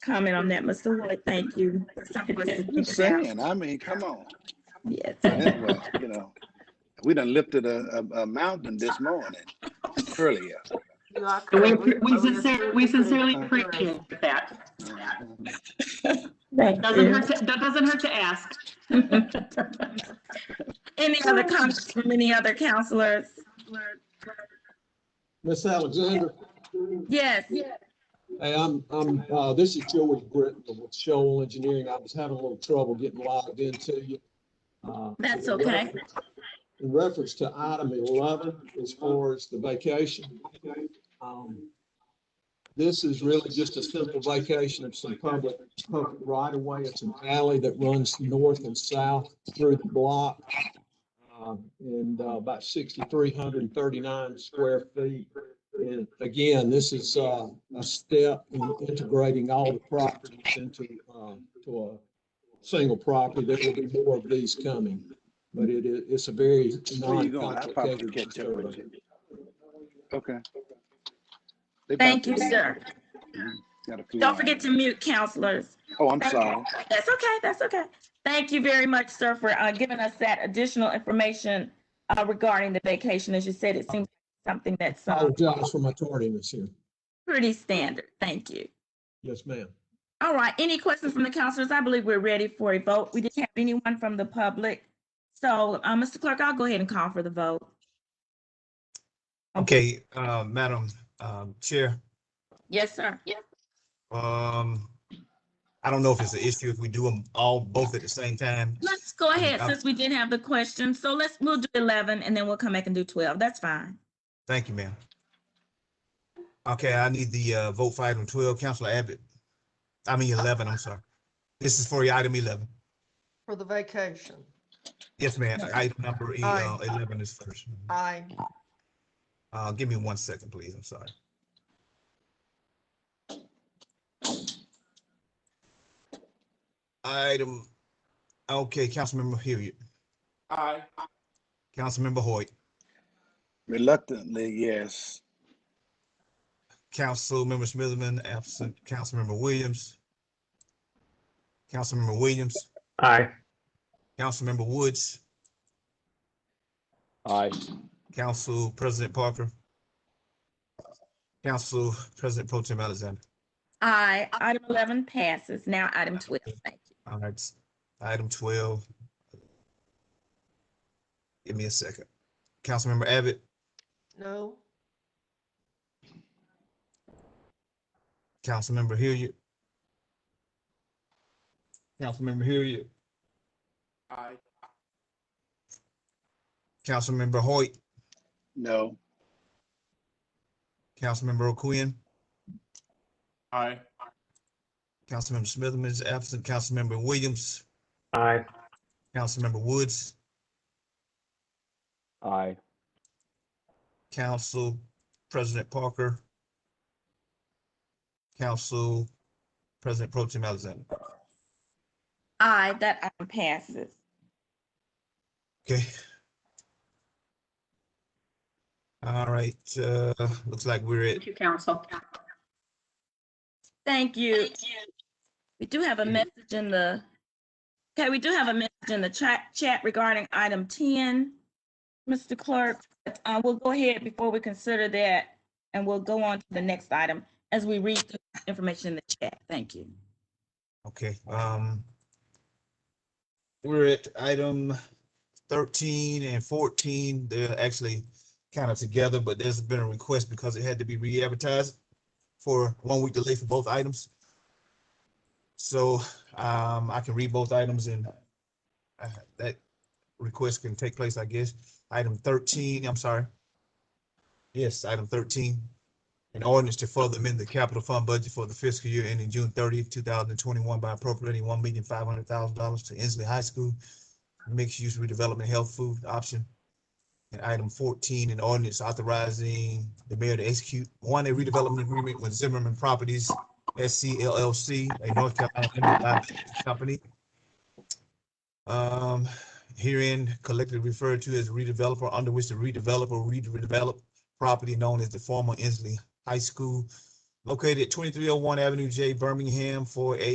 comment on that, Mr. Wood. Thank you. Just saying, I mean, come on. Yes. That was, You know, we done lifted a, a, a mountain this morning earlier. You are We, correct. we sincerely, we sincerely appreciate that. Thank Doesn't you. hurt, to- that doesn't hurt to ask. Any other comments from any other counselors? Miss Alexander, Yes, hey, I'm, I'm, uh, this is Joey Britton with Shoal Engineering. I was having a little trouble getting logged into you. Uh, that's okay. In reference to item eleven, as far as the vacation. um, This is really just a simple vacation of some public, public right of way. It's an alley that runs north and south through the block. um, And uh, about sixty-three hundred and thirty-nine square feet. And again, this is uh, a step in integrating all the properties into, um, to a single property. There will be more of these coming. But it is, it's a very Where you going? I'll probably non-complicated catch up with survey. you. Okay. They Thank you, about- sir. got a few Don't forget hours. to mute counselors. Oh, I'm sorry. That's okay, that's okay. Thank you very much, sir, for uh, giving us that additional information uh, regarding the vacation. As you said, it seems something that's uh, Apologize for my tardiness here. pretty standard. Thank you. Yes, ma'am. All right, any questions from the counselors? I believe we're ready for a vote. We didn't have anyone from the public. So, uh, Mr. Clerk, I'll go ahead and call for the vote. Okay, uh, Madam, um, Chair, Yes, sir. Yes. um, I don't know if it's an issue if we do them all both at the same time. Let's go ahead, Uh, since we didn't have the question. So let's, we'll do eleven and then we'll come back and do twelve. That's fine. Thank you, ma'am. Okay, I need the, uh, vote for item twelve, Counselor Abbott. I mean eleven, I'm sorry. This is for item eleven. For the vacation, Yes, ma'am, item number, e- uh, Aye. eleven is first. I, Uh, give me one second, please, I'm sorry. Item, okay, Councilmember Hilliard. Aye. Councilmember Hoyt, Reluctantly, yes. Councilmember Smithman, absent, Councilmember Williams. Councilmember Williams, Aye. Councilmember Woods, Aye. Council President Parker. Council President Pro Tem Alexander. Aye, item eleven passes. Now item twelve, thank you. All right, s- item twelve. Give me a second. Councilmember Abbott, no, Councilmember Hilliard. Councilmember Hilliard, Aye. Councilmember Hoyt, No. Councilmember O'Quinn. Aye. Councilmember Smithman is absent. Councilmember Williams, Aye. Councilmember Woods, Aye. Council President Parker, Council President Pro Tem Alexander. Aye, that item passes. Okay. All right, uh, looks like we're at, Thank you, council. Thank you. We do have a Mm. message in the, okay, we do have a message in the chat, chat regarding item ten. Mr. Clerk, uh, we'll go ahead before we consider that, and we'll go on to the next item as we read the information in the chat. Thank you. okay, um, we're at item thirteen and fourteen. They're actually kind of together, but there's been a request because it had to be re-advertised for one week delay for both items. So, um, I can read both items and uh, that request can take place, I guess. Item thirteen, I'm sorry. Yes, item thirteen. An ordinance to further amend the capital fund budget for the fiscal year ending June thirtieth, two thousand and twenty-one by appropriating one million five hundred thousand dollars to Inslee High School mixed-use redevelopment health food option. And item fourteen, an ordinance authorizing the mayor to execute one, a redevelopment agreement with Zimmerman Properties SC LLC, a North Carolina limited liability company. Um, herein collectively referred to as redeveloper, under which the redeveloper redevelop property known as the former Inslee High School located at twenty-three oh one Avenue J, Birmingham, for a